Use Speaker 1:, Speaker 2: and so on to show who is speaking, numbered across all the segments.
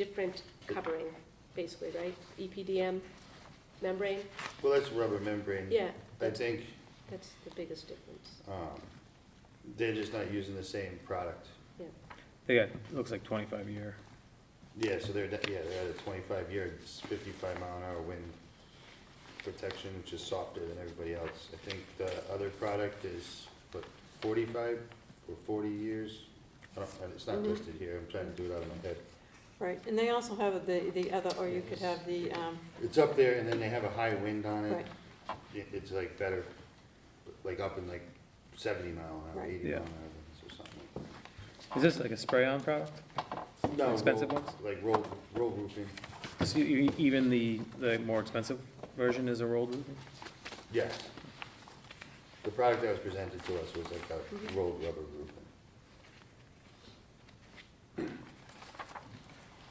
Speaker 1: different covering, basically, right? E EPDM membrane,
Speaker 2: Mm-hmm.
Speaker 3: Well, that's rubber membrane.
Speaker 1: yeah,
Speaker 3: I
Speaker 1: that's,
Speaker 3: think
Speaker 1: that's the biggest difference.
Speaker 3: um, they're just not using the same product.
Speaker 4: They got, looks like twenty-five year.
Speaker 3: Yeah, so they're, de- yeah, they're at a twenty-five year, it's fifty-five mile an hour wind protection, which is softer than everybody else. I think the other product is, what, forty-five or forty years? I don't, it's not
Speaker 5: Mhm.
Speaker 3: listed here, I'm trying to do it out of my head.
Speaker 5: Right, and they also have the, the other, or you could have the, um,
Speaker 3: It's up there and then they have a high wind on it.
Speaker 5: right,
Speaker 3: It, it's like better, like up in like seventy mile an hour,
Speaker 5: Right.
Speaker 3: eighty
Speaker 4: Yeah.
Speaker 3: mile an hour winds or something like that.
Speaker 4: Is this like a spray-on product?
Speaker 3: No,
Speaker 4: Expensive
Speaker 3: roll-
Speaker 4: ones?
Speaker 3: Like roll, roll roofing,
Speaker 4: So you- e, even the, the more expensive version is a rolled roof?
Speaker 3: yes. The product that was presented to us was like a rolled rubber roofing.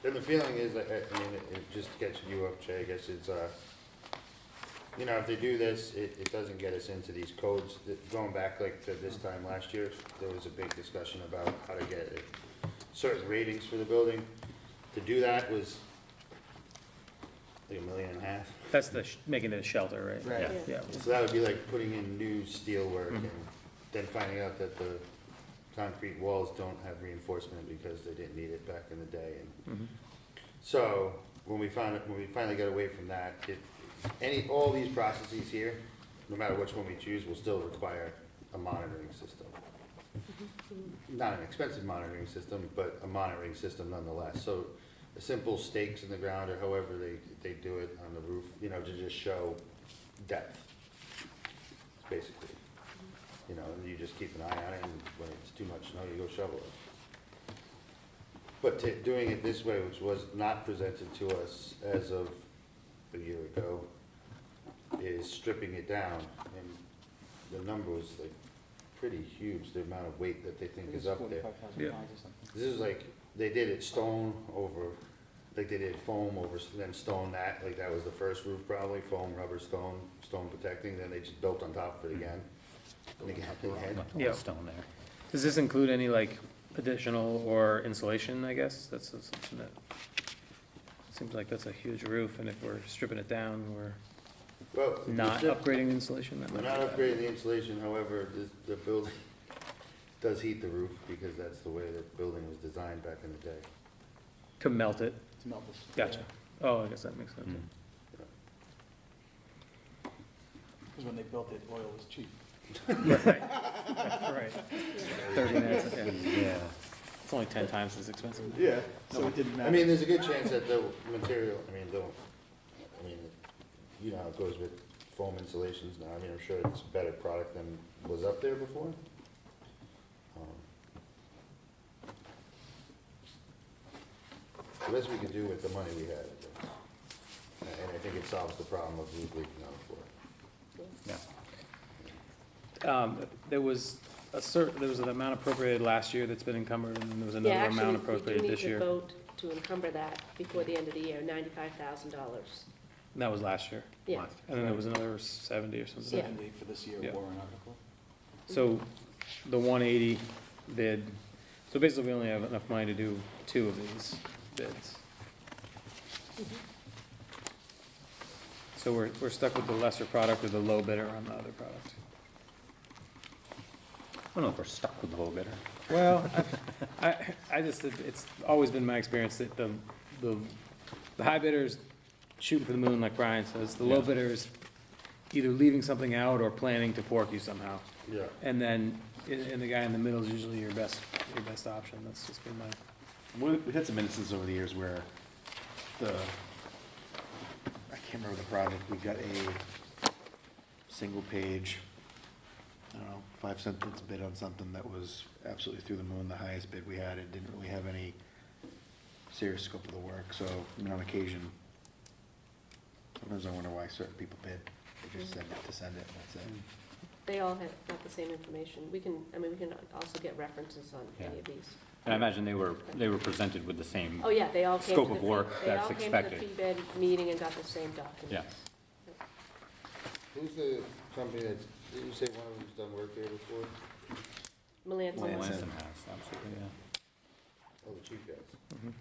Speaker 3: And the feeling is, that, I I mean, it- it just gets you up, Jay, I guess it's, uh, you know, if they do this, it, it doesn't get us into these codes. That- Going back like to this time last year, there was a big discussion about how to get it- certain ratings for the building. To do that was like a million and a half.
Speaker 4: That's the, sh- making it a shelter, right?
Speaker 3: Right.
Speaker 4: Yeah,
Speaker 3: So that would be like putting in new steel work and then finding out that the concrete walls don't have reinforcement because they didn't need it back in the day. And
Speaker 4: Mhm.
Speaker 3: So when we found, when we finally got away from that, it, any, all these processes here, no matter which one we choose, will still require a monitoring system. Not an expensive monitoring system, but a monitoring system nonetheless. So a simple stakes in the ground or however they, they do it on the roof, you know, to just show depth, basically. You know, and you just keep an eye on it, and when it's too much snow, you go shovel it. But to, doing it this way, which was not presented to us as of a year ago, is stripping it down, and the number was like pretty huge, the amount of weight that they think is up there.
Speaker 4: Yeah.
Speaker 3: This is like, they did it stone over, like they did foam over, s- then stone that, like that was the first roof probably, foam, rubber, stone, stone protecting, then they just built on top
Speaker 4: Hmm.
Speaker 3: of it again. And again, and again.
Speaker 4: Yeah.
Speaker 6: Stone there.
Speaker 4: Does this include any like additional or insulation, I guess? That's something that, seems like that's a huge roof, and if we're stripping it down, we're
Speaker 3: Well,
Speaker 4: not
Speaker 3: the-
Speaker 4: upgrading insulation that
Speaker 3: We're
Speaker 4: much.
Speaker 3: not upgrading the insulation, however, this, the building does heat the roof, because that's the way the building was designed back in the day.
Speaker 4: To melt it,
Speaker 7: To melt this.
Speaker 4: gotcha. Oh, I guess that makes sense.
Speaker 3: Mm.
Speaker 7: Because when they built it, oil was cheap.
Speaker 4: Right. Right, thirty minutes, yeah.
Speaker 6: Yeah,
Speaker 4: It's only ten times as expensive.
Speaker 7: Yeah. So it didn't matter.
Speaker 3: I mean, there's a good chance that the material, I mean, the, I mean, you know how it goes with foam insulations now, I mean, I'm sure it's a better product than was up there before. Um, The best we can do with the money we had, I think. and I think it solves the problem of roof leaking on the floor.
Speaker 6: yeah.
Speaker 4: Um, there was a cer, there was an amount appropriated last year that's been encumbered, and there was
Speaker 1: Yeah,
Speaker 4: another
Speaker 1: actually, we
Speaker 4: amount
Speaker 1: do
Speaker 4: appropriated
Speaker 1: need
Speaker 4: this
Speaker 1: to
Speaker 4: year.
Speaker 1: vote to encumber that before the end of the year, ninety-five thousand dollars.
Speaker 4: That was last year.
Speaker 1: Yeah,
Speaker 4: And then there was another seventy or something.
Speaker 1: Yeah.
Speaker 7: Seventy for this year
Speaker 4: Yeah.
Speaker 7: warrant article.
Speaker 4: So the one eighty bid, so basically we only have enough money to do two of these bids. So we're, we're stuck with the lesser product or the low bidder on the other product.
Speaker 6: I don't know if we're stuck with the whole bidder.
Speaker 4: Well, I- I, I just, it's always been my experience that the, the, the high bidder is shooting for the moon, like Brian says. The low
Speaker 6: Yeah.
Speaker 4: bidder is either leaving something out or planning to pork you somehow.
Speaker 3: Yeah.
Speaker 4: And then, and, and the guy in the middle is usually your best, your best option. That's just been my,
Speaker 6: We- We've had some instances over the years where the, I can't remember the project, we got a single page, I don't know, five sentence bid on something that was absolutely through the moon, the highest bid we had. It didn't really have any serious scope of the work, so, I mean, on occasion, sometimes I wonder why certain people bid. They just send it to send it, and that's it.
Speaker 1: they all have not the same information. We can, I mean, we can also get references on any of these.
Speaker 2: And I imagine they were, they were presented with the same,
Speaker 1: Oh, yeah, they all came to the.
Speaker 2: Scope of
Speaker 1: fee-
Speaker 2: work that's
Speaker 1: They all
Speaker 2: expected.
Speaker 1: came to the pre-bid meeting and got the same documents.
Speaker 3: Who's the company that's, did you say one of them's done work there before?
Speaker 1: Melanson.
Speaker 2: Melanson House, absolutely, yeah.
Speaker 3: Oh, the chief guys.